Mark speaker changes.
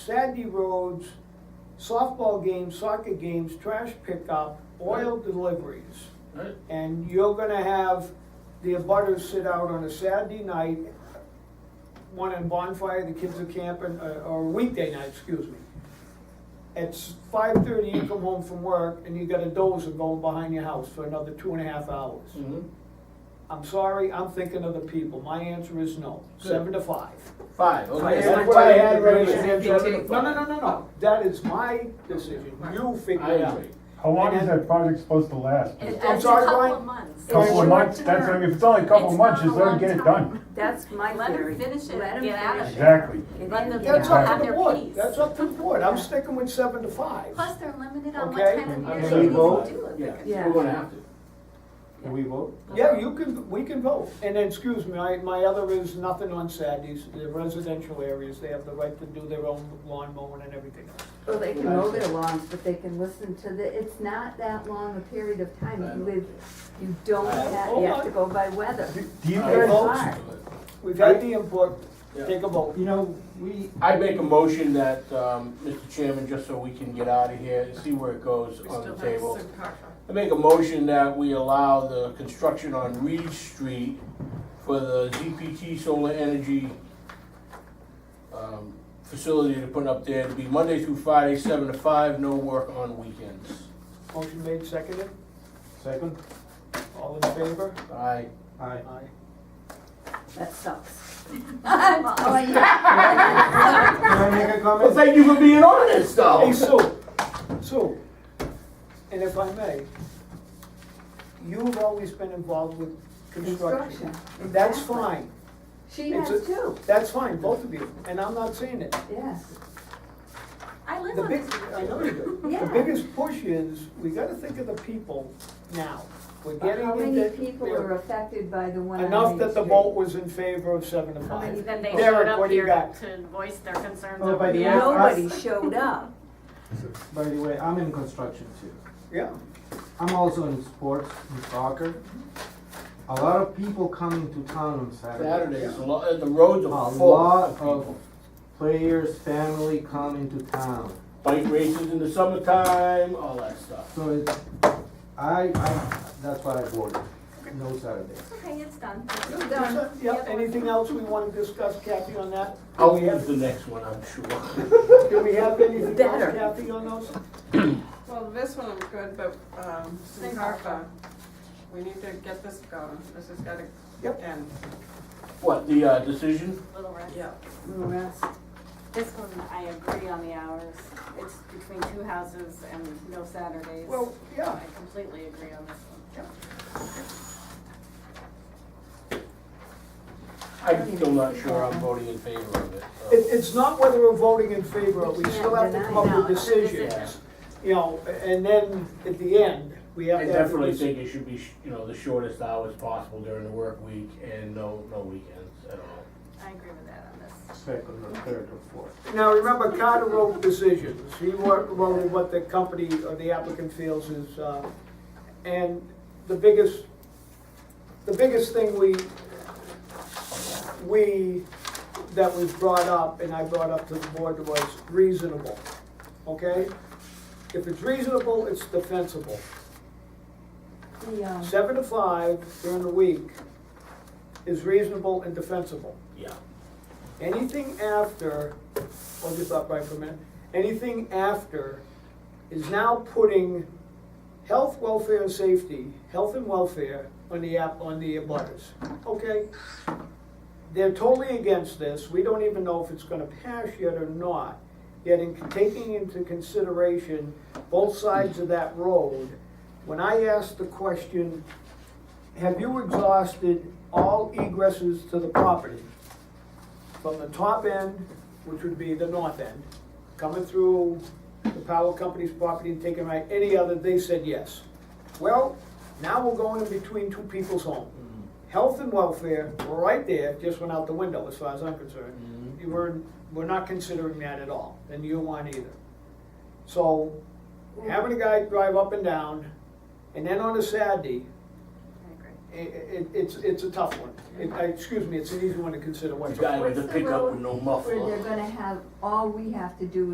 Speaker 1: Sandy roads, softball games, soccer games, trash pickup, oil deliveries.
Speaker 2: Right,
Speaker 1: And you're gonna have the abutters sit out on a Saturday night, one in bonfire, the kids are camping, uh, or weekday night, excuse me. It's five thirty, you come home from work, and you got a dozer going behind your house for another two and a half hours.
Speaker 2: mhm.
Speaker 1: I'm sorry, I'm thinking of the people, my answer is no,
Speaker 2: Good.
Speaker 1: seven to five.
Speaker 2: Five, okay.
Speaker 3: That's
Speaker 1: That's
Speaker 3: my
Speaker 1: what I
Speaker 3: time.
Speaker 1: had right here.
Speaker 3: Yeah, me too.
Speaker 1: No, no, no, no, no, that is my decision, you figure
Speaker 2: I
Speaker 1: it out.
Speaker 2: agree.
Speaker 4: How long
Speaker 1: And
Speaker 4: is
Speaker 1: then-
Speaker 4: that project supposed to last?
Speaker 5: It- It's
Speaker 1: I'm
Speaker 5: a
Speaker 1: sorry,
Speaker 5: couple
Speaker 1: Brian?
Speaker 5: of months.
Speaker 4: Couple
Speaker 1: It's
Speaker 4: of months,
Speaker 5: short
Speaker 4: that's, I
Speaker 5: term.
Speaker 4: mean, if it's only a couple
Speaker 5: It's
Speaker 4: months,
Speaker 5: not
Speaker 4: just
Speaker 5: a
Speaker 4: let them
Speaker 5: long
Speaker 4: get it
Speaker 5: time.
Speaker 4: done.
Speaker 3: That's my
Speaker 5: Let 'em
Speaker 3: theory.
Speaker 5: finish it,
Speaker 3: Let 'em
Speaker 5: get out of
Speaker 3: finish
Speaker 5: there.
Speaker 4: Exactly.
Speaker 5: Let them
Speaker 1: That's
Speaker 4: Yeah.
Speaker 1: up
Speaker 5: have
Speaker 1: to the
Speaker 5: their
Speaker 1: board,
Speaker 5: peace.
Speaker 1: that's up to the board, I'm sticking with seven to five.
Speaker 5: Plus, they're limited on what
Speaker 1: Okay.
Speaker 5: time
Speaker 2: I'm
Speaker 5: of year
Speaker 2: gonna
Speaker 5: they need to
Speaker 2: vote.
Speaker 5: do
Speaker 2: Yeah,
Speaker 5: it.
Speaker 3: Yeah.
Speaker 2: we're gonna have to.
Speaker 3: Can
Speaker 1: we vote? Yeah, you can, we can vote, and then, excuse me, my, my other is nothing on Saturdays, the residential areas, they have the right to do their own lawn mowing and everything else.
Speaker 3: Well, they can mow their lawns, but they can listen to the, it's not that long a period of time. You live, you don't have, you have to go by weather.
Speaker 4: Do do you
Speaker 2: I
Speaker 4: guys,
Speaker 1: vote.
Speaker 3: Hard.
Speaker 1: We've had the input,
Speaker 2: Yeah.
Speaker 1: take a vote.
Speaker 6: You know, we,
Speaker 2: I make a motion that, um, Mr. Chairman, just so we can get out of here and see where it goes on the table. I make a motion that we allow the construction on Reed Street for the ZPT solar energy um, facility to put up there to be Monday through Friday, seven to five, no work on weekends.
Speaker 1: Motion made, seconded,
Speaker 6: second,
Speaker 1: all in favor?
Speaker 2: Aye.
Speaker 6: aye.
Speaker 1: Aye.
Speaker 3: That sucks.
Speaker 5: I'm all-
Speaker 6: Can I make a
Speaker 2: Well,
Speaker 6: comment?
Speaker 2: thank you for being honest, though.
Speaker 1: Hey, Sue, Sue, and if I may, you've always been involved with construction.
Speaker 3: Construction.
Speaker 1: That's
Speaker 3: exactly.
Speaker 1: fine,
Speaker 3: She
Speaker 1: It's
Speaker 3: has
Speaker 1: a-
Speaker 3: too,
Speaker 1: that's fine, both of you, and I'm not saying it.
Speaker 3: yes.
Speaker 5: I live
Speaker 1: The
Speaker 5: on
Speaker 1: big,
Speaker 5: this.
Speaker 1: I know you do. The
Speaker 3: Yeah.
Speaker 1: biggest push is, we gotta think of the people now. We're
Speaker 3: But
Speaker 1: getting
Speaker 3: how
Speaker 1: into.
Speaker 3: many people are affected by the one on
Speaker 1: Enough
Speaker 3: Main
Speaker 1: that the
Speaker 3: Street?
Speaker 1: vote was in favor of seven to
Speaker 3: How many
Speaker 1: five.
Speaker 7: Then they showed
Speaker 1: Derek,
Speaker 7: up
Speaker 1: what do you
Speaker 7: here
Speaker 1: got?
Speaker 7: to voice their
Speaker 1: Oh,
Speaker 7: concerns
Speaker 6: Well,
Speaker 7: over
Speaker 6: by
Speaker 7: the
Speaker 6: the
Speaker 7: hours.
Speaker 6: end-
Speaker 1: uh,
Speaker 3: Nobody showed up.
Speaker 6: By the way, I'm in construction too.
Speaker 1: Yeah,
Speaker 6: I'm also in sports, in soccer. A lot of people coming to town on Saturday.
Speaker 2: Saturdays, a lot, the roads
Speaker 6: A
Speaker 2: are full
Speaker 6: lot
Speaker 2: of
Speaker 6: of
Speaker 2: people.
Speaker 6: players, family coming to town.
Speaker 2: Bike races in the summertime, all that stuff.
Speaker 6: So it's, I, I, that's what I voted, no Saturday.
Speaker 5: Okay, it's done.
Speaker 3: Done.
Speaker 1: yeah, anything else we wanna discuss, Kathy, on that? Do
Speaker 2: I'll
Speaker 1: we
Speaker 2: use
Speaker 1: have,
Speaker 2: the next one, I'm sure.
Speaker 1: do we have anything else,
Speaker 3: Better.
Speaker 1: Kathy, on those?
Speaker 8: Well, this one was good, but, um,
Speaker 5: Thank
Speaker 8: Sincarfa, we need to get this going, this has gotta
Speaker 1: Yep.
Speaker 8: end.
Speaker 2: What, the, uh, decision?
Speaker 7: Little Red.
Speaker 8: Yeah.
Speaker 3: Little rest.
Speaker 7: This one, I agree on the hours. It's between two houses and no Saturdays.
Speaker 1: Well, yeah,
Speaker 7: I completely agree on this one.
Speaker 2: I'm still not sure I'm voting in favor of it, so.
Speaker 1: It, it's not whether we're voting in favor, we still have to come up with
Speaker 3: No,
Speaker 7: it's a decision.
Speaker 1: decisions. You know, and then at the end, we have
Speaker 2: I
Speaker 1: to have. a
Speaker 2: definitely
Speaker 1: decision.
Speaker 2: think it should be, sh- you know, the shortest hours possible during the work week and no, no weekends at all.
Speaker 7: I agree with that on this.
Speaker 6: Second or third or fourth.
Speaker 1: Now, remember, Carter wrote decisions. He wrote wrote what the company or the applicant feels is, uh, and the biggest, the biggest thing we, we, that was brought up, and I brought up to the board was reasonable, okay? If it's reasonable, it's defensible.
Speaker 3: The, um,
Speaker 1: Seven to five during the week is reasonable and defensible.
Speaker 2: Yeah.
Speaker 1: Anything after, hold your thought right for a minute, anything after is now putting health, welfare, and safety, health and welfare on the app, on the abutters, okay? They're totally against this, we don't even know if it's gonna pass yet or not. Yet in taking into consideration both sides of that road, when I asked the question, have you exhausted all egresses to the property? from the top end, which would be the north end, coming through the power company's property and taking right, any other, they said yes. Well, now we're going in between two people's home. Health and welfare, right there, just went out the window as far as I'm concerned. You were, we're not considering that at all, and you want either. So, having a guy drive up and down, and then on a Saturday,
Speaker 7: I agree.
Speaker 1: i- i- it's, it's a tough one. It- I- Excuse me, it's an easy one to consider
Speaker 2: The
Speaker 1: whatsoever.
Speaker 2: guy with the
Speaker 3: um, What's the
Speaker 2: pickup
Speaker 3: road
Speaker 2: with no
Speaker 3: Where
Speaker 2: muffler.
Speaker 3: they're gonna have, all we have to do